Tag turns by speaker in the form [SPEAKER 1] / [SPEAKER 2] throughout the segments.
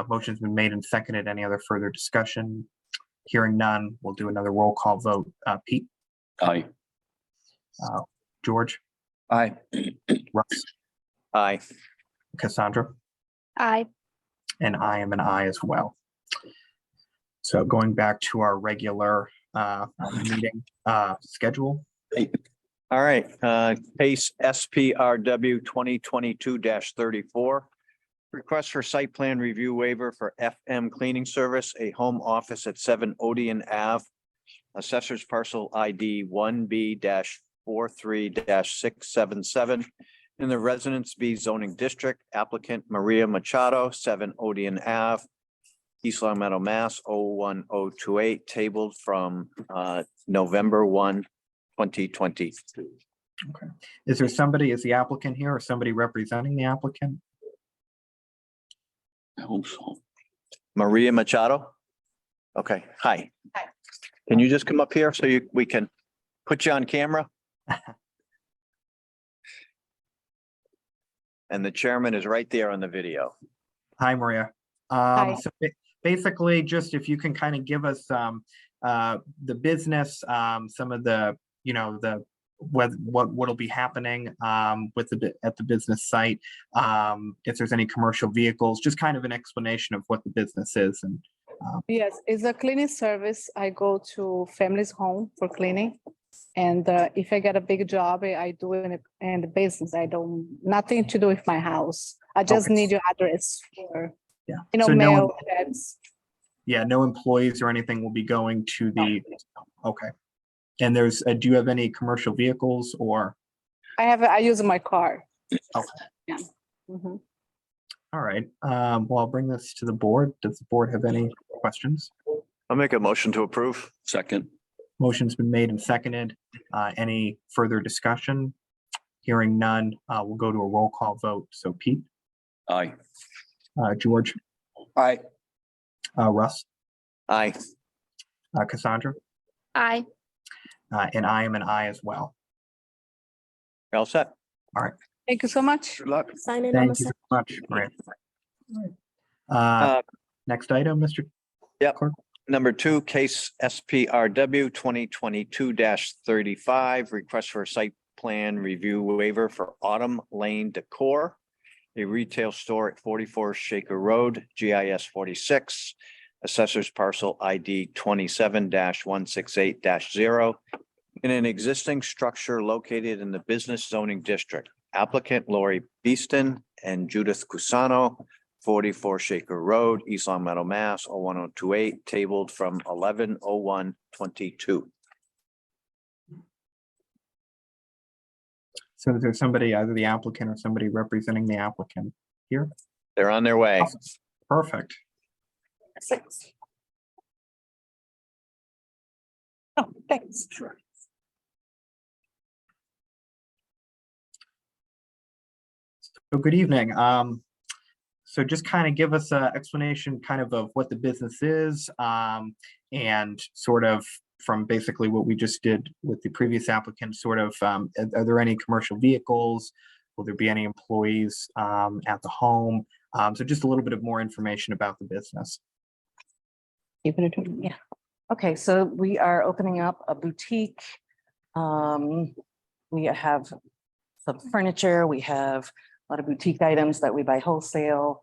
[SPEAKER 1] Uh, Motion's been made and seconded. Any other further discussion? Hearing none, we'll do another roll call vote. Uh, Pete,
[SPEAKER 2] Aye.
[SPEAKER 1] George,
[SPEAKER 2] Aye.
[SPEAKER 1] Russ,
[SPEAKER 2] Aye.
[SPEAKER 1] Cassandra?
[SPEAKER 3] Aye.
[SPEAKER 1] And I am an I as well. So going back to our regular uh, meeting uh, schedule,
[SPEAKER 2] All right, uh, case SPRW twenty twenty-two thirty-four. Request for site plan review waiver for FM cleaning service, a home office at seven Odeon Ave. Assessors parcel ID one B 43 six seven seven. In the Residence B zoning district applicant Maria Machado, seven Odeon Ave. East Long Meadow, Mass, 01028, tabled from uh, November one, 2022.
[SPEAKER 1] is there somebody, is the applicant here or somebody representing the applicant?
[SPEAKER 4] I hope so.
[SPEAKER 2] Maria Machado? Okay, hi.
[SPEAKER 3] Hi.
[SPEAKER 2] Can you just come up here so you, we can put you on camera? And the chairman is right there on the video.
[SPEAKER 1] Hi, Maria.
[SPEAKER 3] Hi.
[SPEAKER 1] Um, so ba- basically, just if you can kind of give us, um, uh, the business, um, some of the, you know, the, what, what, what'll be happening, um, with the, bu- at the business site. Um, if there's any commercial vehicles, just kind of an explanation of what the business is and,
[SPEAKER 5] Yes, it's a cleaning service. I go to families' home for cleaning. And uh, if I get a big job, eh, I I do it in, the- in the business. I don't, nothing to do with my house. I just
[SPEAKER 1] Okay.
[SPEAKER 5] need your address for,
[SPEAKER 1] Yeah.
[SPEAKER 5] you know,
[SPEAKER 1] So no one-
[SPEAKER 5] mail, fax.
[SPEAKER 1] Yeah, no employees or anything will be going to the, okay. And there's, uh, do you have any commercial vehicles or,
[SPEAKER 5] I have, I use my car.
[SPEAKER 1] Okay.
[SPEAKER 5] Yeah. Mhm.
[SPEAKER 1] all right, um, well, I'll bring this to the board. Does the board have any questions?
[SPEAKER 2] I'll make a motion to approve.
[SPEAKER 4] Second,
[SPEAKER 1] Motion's been made and seconded. Uh, any further discussion? Hearing none, uh, we'll go to a roll call vote. So Pete,
[SPEAKER 4] aye.
[SPEAKER 1] uh, George,
[SPEAKER 4] Aye.
[SPEAKER 1] uh, Russ,
[SPEAKER 2] Aye.
[SPEAKER 1] uh, Cassandra,
[SPEAKER 3] Aye.
[SPEAKER 1] uh, and I am an I as well.
[SPEAKER 2] You're All set?
[SPEAKER 5] Thank you so much.
[SPEAKER 2] Good luck.
[SPEAKER 3] Sign in on the
[SPEAKER 1] Thank you
[SPEAKER 3] side.
[SPEAKER 1] so much, Maria. Uh, next item, Mr.
[SPEAKER 2] Number two, case SPRW twenty twenty-two thirty-five, request for a site plan review waiver for Autumn Lane Decor. A retail store at forty-four Shaker Road, GIS forty-six, assessors parcel ID twenty-seven one six eight zero. In an existing structure located in the business zoning district, applicant Lori Beeston and Judith Cusano forty-four Shaker Road, East Long Meadow, Mass, oh one oh two eight, tabled from eleven oh one twenty-two.
[SPEAKER 1] So there's somebody, either the applicant or somebody representing the applicant.
[SPEAKER 2] They're on their way.
[SPEAKER 1] Perfect.
[SPEAKER 5] Six. Oh, thanks.
[SPEAKER 1] So good evening. Um, so just kind of give us an explanation kind of of what the business is, um, and sort of from basically what we just did with the previous applicant, sort of, um, are- are there any commercial vehicles? Will there be any employees, um, at the home? Um, so just a little bit of more information about the business.
[SPEAKER 6] Even if, yeah. Okay, so we are opening up a boutique. Um, we have some furniture, we have a lot of boutique items that we buy wholesale.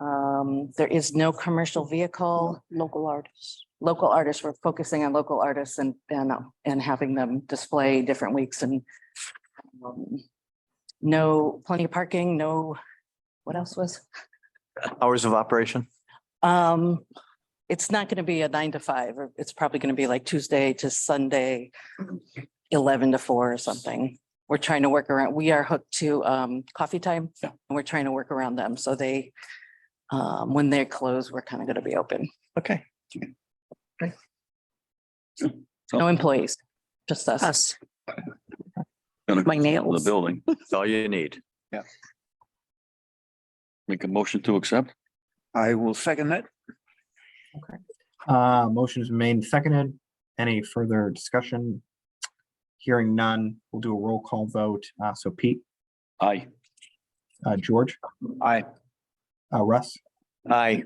[SPEAKER 6] Um, there is no commercial vehicle. Local artists. Local artists, we're focusing on local artists and, and, uh, and having them display different weeks and um, no, plenty of parking, no, what else was?
[SPEAKER 2] Hours of operation?
[SPEAKER 6] Um, it's not gonna be a nine to five, or it's probably gonna be like Tuesday to Sunday, eleven to four or something. We're trying to work around, we are hooked to um coffee time, and we're trying to work around them, so they um, when they're closed, we're kind of gonna be open.
[SPEAKER 2] Okay.
[SPEAKER 6] No employees, just us.
[SPEAKER 7] Us,
[SPEAKER 4] Gonna
[SPEAKER 7] my
[SPEAKER 4] call The
[SPEAKER 7] nails.
[SPEAKER 4] building,
[SPEAKER 2] That's all you need.
[SPEAKER 4] make a motion to accept?
[SPEAKER 8] I will second that.
[SPEAKER 1] Uh, motion is made and seconded. Any further discussion? Hearing none, we'll do a roll call vote. Uh, so Pete,
[SPEAKER 4] Aye.
[SPEAKER 1] uh, George,
[SPEAKER 8] Aye.
[SPEAKER 1] uh, Russ,
[SPEAKER 2] Aye.